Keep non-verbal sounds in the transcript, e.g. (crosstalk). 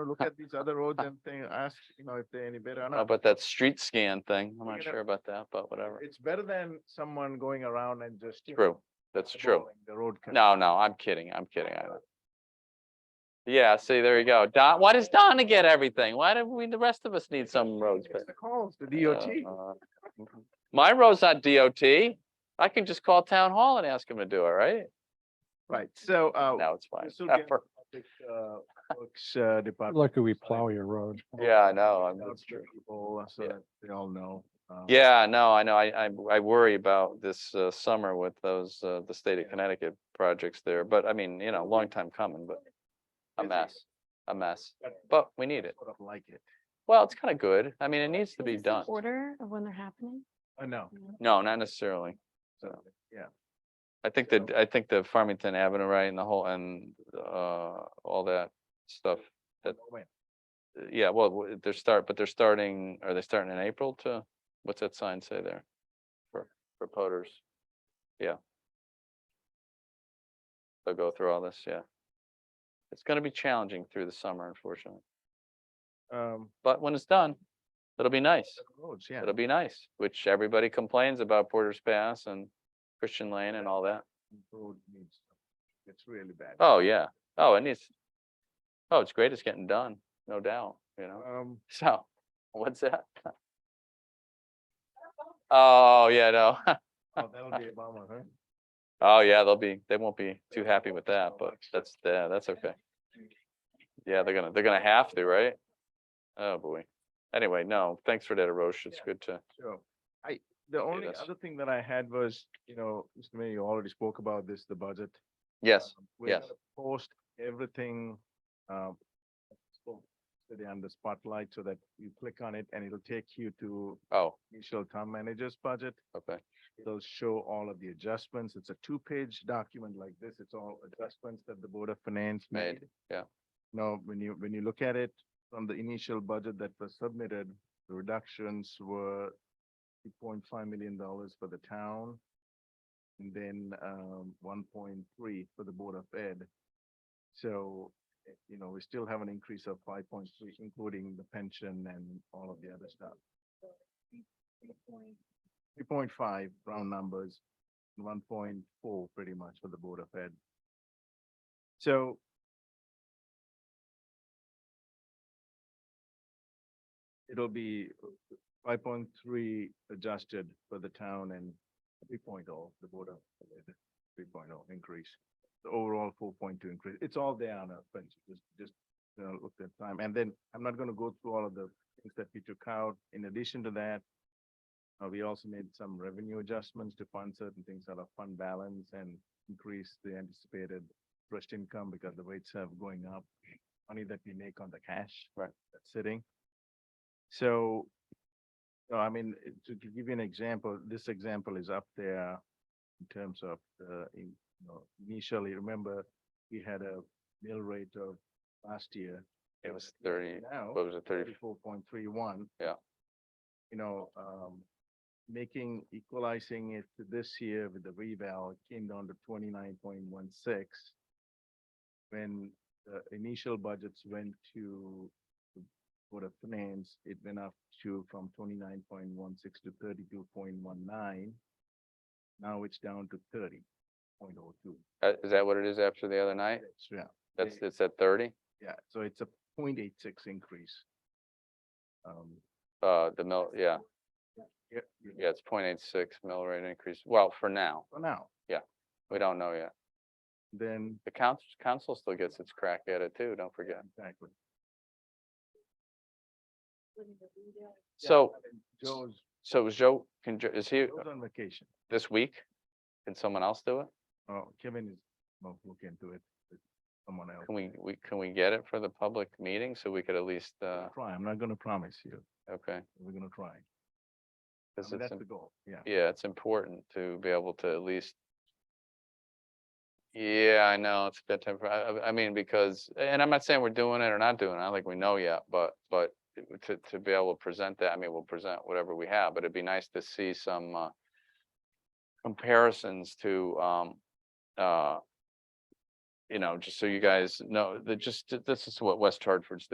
Uh, look at these other roads and thing, ask, you know, if they're any better or How not. About Uh, that street scan thing, I'm We're not gonna- sure about that, but whatever. It's better than someone going around and just. you know, True, that's true. eyeballing The road. con- No, no, I'm kidding, I'm kidding. I know. Yeah, see, there you go. Don, why does Donna get everything? Why do we, the rest of us need some roads? It's but- the calls, the DOT. Uh, uh, My road's not DOT. I can just call town hall and ask them to do it, right? Right, so, uh, No, it's fine. this (laughs) will get Effort. public, uh, works, uh, department. Lucky we plow your road. (laughs) Yeah, I know, I'm- out that's to true. People, uh, so Yeah. that they all know. uh, Yeah, no, I know. I, I, I worry about this uh, summer with those, uh, the state of Connecticut projects there, but I mean, you know, long time coming, but a busy, mess, a mess, but but we need it. Sort of like it. Well, it's kind of good. I mean, it needs to be Is this in done. Order of when they're happening? I know, No, not necessarily. so, yeah. I think that, I think the Farmington Avenue, right, and the whole, and, uh, all that stuff. That- When? Yeah, well, w- they're start, but they're starting, are they starting in April to, what's that sign say there? For, for poters? Yeah. They'll go through all this, yeah. It's gonna be challenging through the summer, unfortunately, Um, but when it's done, it'll be nice. roads, yeah. It'll be nice, which everybody complains about Porter's Pass and Christian Lane and all that. Road needs, it's really bad. Oh, yeah. Oh, and it's, oh, it's great. It's getting done, no doubt, you know? Um, So, what's that? Oh, yeah, no. (laughs) oh, that'll be a bummer, huh? Oh, yeah, they'll be, they won't be too happy with that, but that's, yeah, that's okay. Yeah, they're gonna, they're gonna have to, right? Oh, boy. Anyway, no, thanks for that, Arosh. It's Yeah. good to, So I, the only that's- other thing that I had was, you know, Mr. Mayor, you already spoke about this, the budget. yes, Um, we're yes. gonna Post everything, um, so city under spotlight so that you click on it and it'll take you to oh, initial town manager's budget. okay, It'll show all of the adjustments. It's a two-page document like this. It's all adjustments that the Board of Finance Made, made. yeah. Now, when you, when you look at it from the initial budget that was submitted, the reductions were two point five million dollars for the town. And then um one point three for the Board of Ed. So, eh, you know, we still have an increase of five point three, including the pension and all of the other stuff. Three point five round numbers, one point four pretty much for the Board of Ed. So it'll be five point three adjusted for the town and three oh, the Board of three oh increase. The overall four point two increase. It's all there on a, but just, just you know, look at time. And then I'm not gonna go through all of the things that we took out. In addition to that, uh, we also made some revenue adjustments to fund certain things out of fund balance and increase the anticipated interest income because the rates have going up. Money that we make on the cash. Right. That's sitting. So, no, I mean, eh, to gi- give you an example, this example is up there in terms of, uh, in, you know, initially, remember, we had a mill rate of last year. It was 30 Now. what was it, thirty? Thirty-four point three one. Yeah. You know, um, making, equalizing it to this year with the reval, it came down to twenty-nine point one six. When the initial budgets went to the Board of Finance, it went up to from twenty-nine point one six to thirty-two point one nine. Now it's down to thirty point oh two. Uh, Is that what it is after the other night? Yeah, That's, They- it's at thirty? yeah, so it's a point eight six increase. Um, Uh, the mill, yeah, yeah, yeah, it's point eight six mill rate increase. Well, for now, for now. we don't know yet. then The council, council still gets its crack at it too, don't forget. exactly. So, Joe's, so is Joe, can, Jo- is he Joe's on vacation. this week? Can someone else do it? Oh, Kevin is, well, look into it with someone else. Can we, we, can we get it for the public meeting so we could at least, uh, Try, I'm not gonna promise you. okay? We're gonna try. I 'cause mean, it's That's im- the goal, yeah. Yeah, it's important to be able to at least. Yeah, I know, it's that type of, I, I- I mean, because, and I'm not saying we're doing it or not doing it, I don't think we know yet, but, but it- to, to be able to present that, I mean, we'll present whatever we have, but it'd be nice to see some, uh, comparisons to, um, uh, you know, just so you guys know, that just, this is what West Hartford's